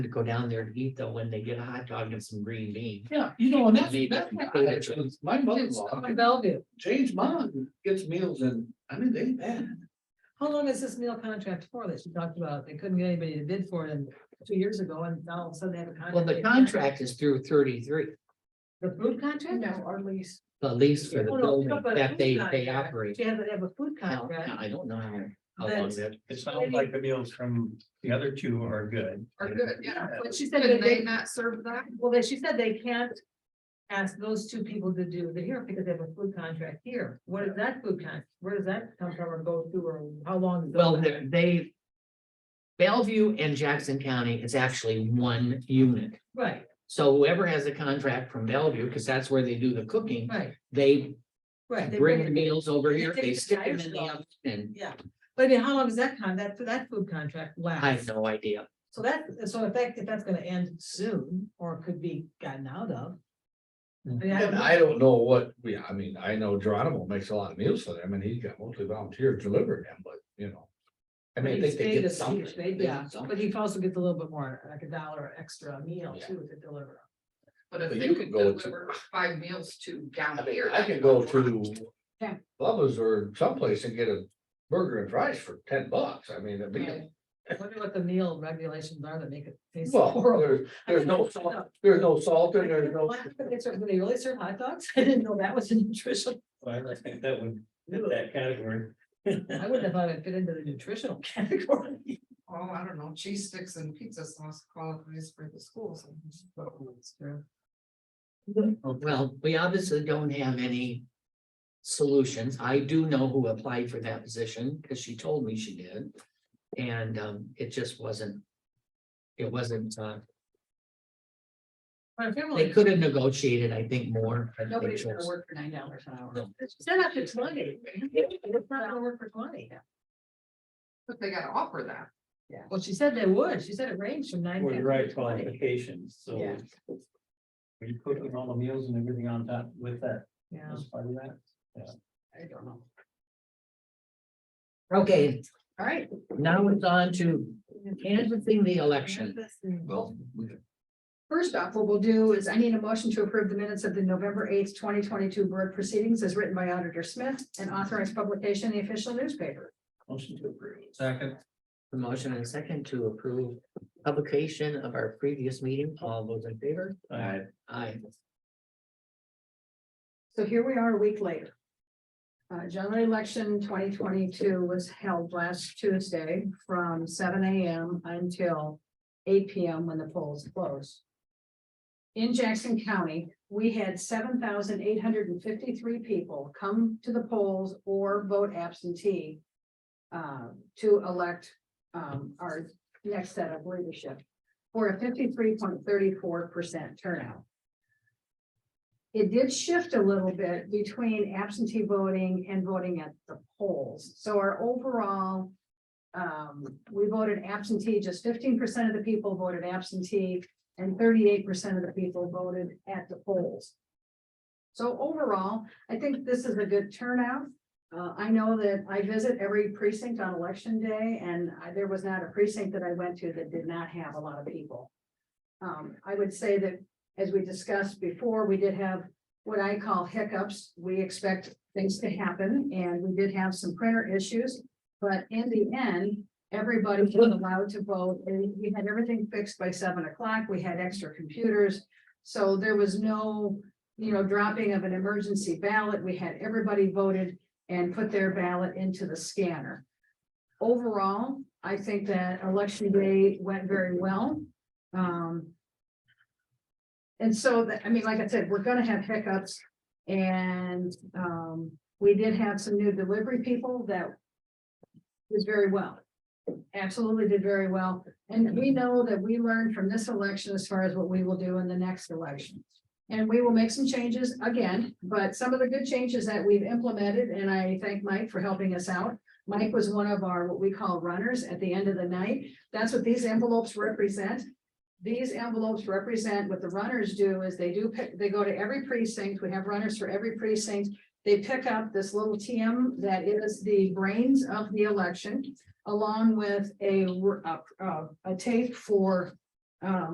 to go down there to eat though when they get a hot dog and some green beans. Yeah, you know, and that's, Maybe that's we my could. attitude. My mother-in-law, On Bellevue. Jane's mom gets meals and, I mean, they, man, How long is this meal contract for that she talked about? They couldn't get anybody to bid for it in two years ago and now all of a sudden they have a contract. Well, the contract is through thirty-three, The food contract? No, or lease. the lease for the Oh, no, building but a that food they, they contract. operate. She had to have a food I don't- contract. I don't know how, how long That's- that, It sounds like the meals from the other two are good. Are good, yeah, but she said But did they they- not serve that. Well, then she said they can't ask those two people to do the here because they have a food contract here. What is that food contract? Where does that come from or go through or how long? ago well, that- they're- they. Bellevue and Jackson County is actually one unit. Right, So whoever has a contract from Bellevue, because that's where they do the cooking, right, they right. They bring the it. meals over here, They they take the stick them tires in the off. oven. And But I mean, how long does that con, that, that food contract last? I have no idea. So that, so in fact, if that's gonna end soon or could be gotten out of. I mean, I don't And know. I don't know what, we, I mean, I know Geronimo makes a lot of meals for them and he's got mostly volunteers delivering them, but you know. I mean, I He's think they paid get a something. huge, They they- get Yeah, something. but he also gets a little bit more, like a dollar extra a meal Yeah. too to deliver. But if But they you could could go to- deliver five meals to down I mean, here. I that can would go work. to Yeah. Bubba's or someplace and get a burger and fries for ten bucks. I mean, it'd be, Right. I wonder what the meal regulations are that make it taste so well, horrible. there's, there's no salt, I there's no salt in there, didn't know no. why They serve- do they really serve hot dogs? I didn't know that was a nutritional, Well, I think that would, fit that category. I wouldn't have thought it fit into the nutritional category. Oh, I don't know, cheese sticks and pizza sauce qualifies for the schools. Well, we obviously don't have any solutions. I do know who applied for that position because she told me she did. And um, it just wasn't. It wasn't, uh, My family- they could have negotiated, I think, more. but they Nobody's gonna chose- work for nine dollars an hour. No. Set up to twenty. It's not gonna work for twenty. But they gotta offer that. Yeah. Well, she said they would. She said it ranged from nine. With the right 50 to 20. qualifications, so. Yeah. Are you cooking all the meals and everything on top with that, Yeah, as part of that? I don't know. Okay, All right. now it's on to canvassing the election. Well, we could- First off, what we'll do is I need a motion to approve the minutes of the November eighth, twenty twenty-two board proceedings as written by Auditor Smith and authorized publication in the official newspaper. Motion to approve. Second. The motion and second to approve publication of our previous meeting. All those in favor? Alright, Aye. So here we are a week later. Uh, general election twenty twenty-two was held last Tuesday from seven AM until eight PM when the polls closed. In Jackson County, we had seven thousand eight hundred and fifty-three people come to the polls or vote absentee uh, to elect um, our next set of leadership for a fifty-three point thirty-four percent turnout. It did shift a little bit between absentee voting and voting at the polls. So our overall um, we voted absentee, just fifteen percent of the people voted absentee and thirty-eight percent of the people voted at the polls. So overall, I think this is a good turnout. Uh, I know that I visit every precinct on election day and I- there was not a precinct that I went to that did not have a lot of people. Um, I would say that, as we discussed before, we did have what I call hiccups. We expect things to happen and we did have some printer issues. But in the end, everybody was allowed to vote and we had everything fixed by seven o'clock. We had extra computers. So there was no, you know, dropping of an emergency ballot. We had everybody voted and put their ballot into the scanner. Overall, I think that election day went very well. Um. And so that, I mean, like I said, we're gonna have hiccups and, um, we did have some new delivery people that did very well. Absolutely did very well. And we know that we learned from this election as far as what we will do in the next election. And we will make some changes again, but some of the good changes that we've implemented, and I thank Mike for helping us out. Mike was one of our, what we call runners at the end of the night. That's what these envelopes represent. These envelopes represent what the runners do is they do pick, they go to every precinct. We have runners for every precinct. They pick up this little TM that is the brains of the election, along with a, r- a- a- a tape for Um,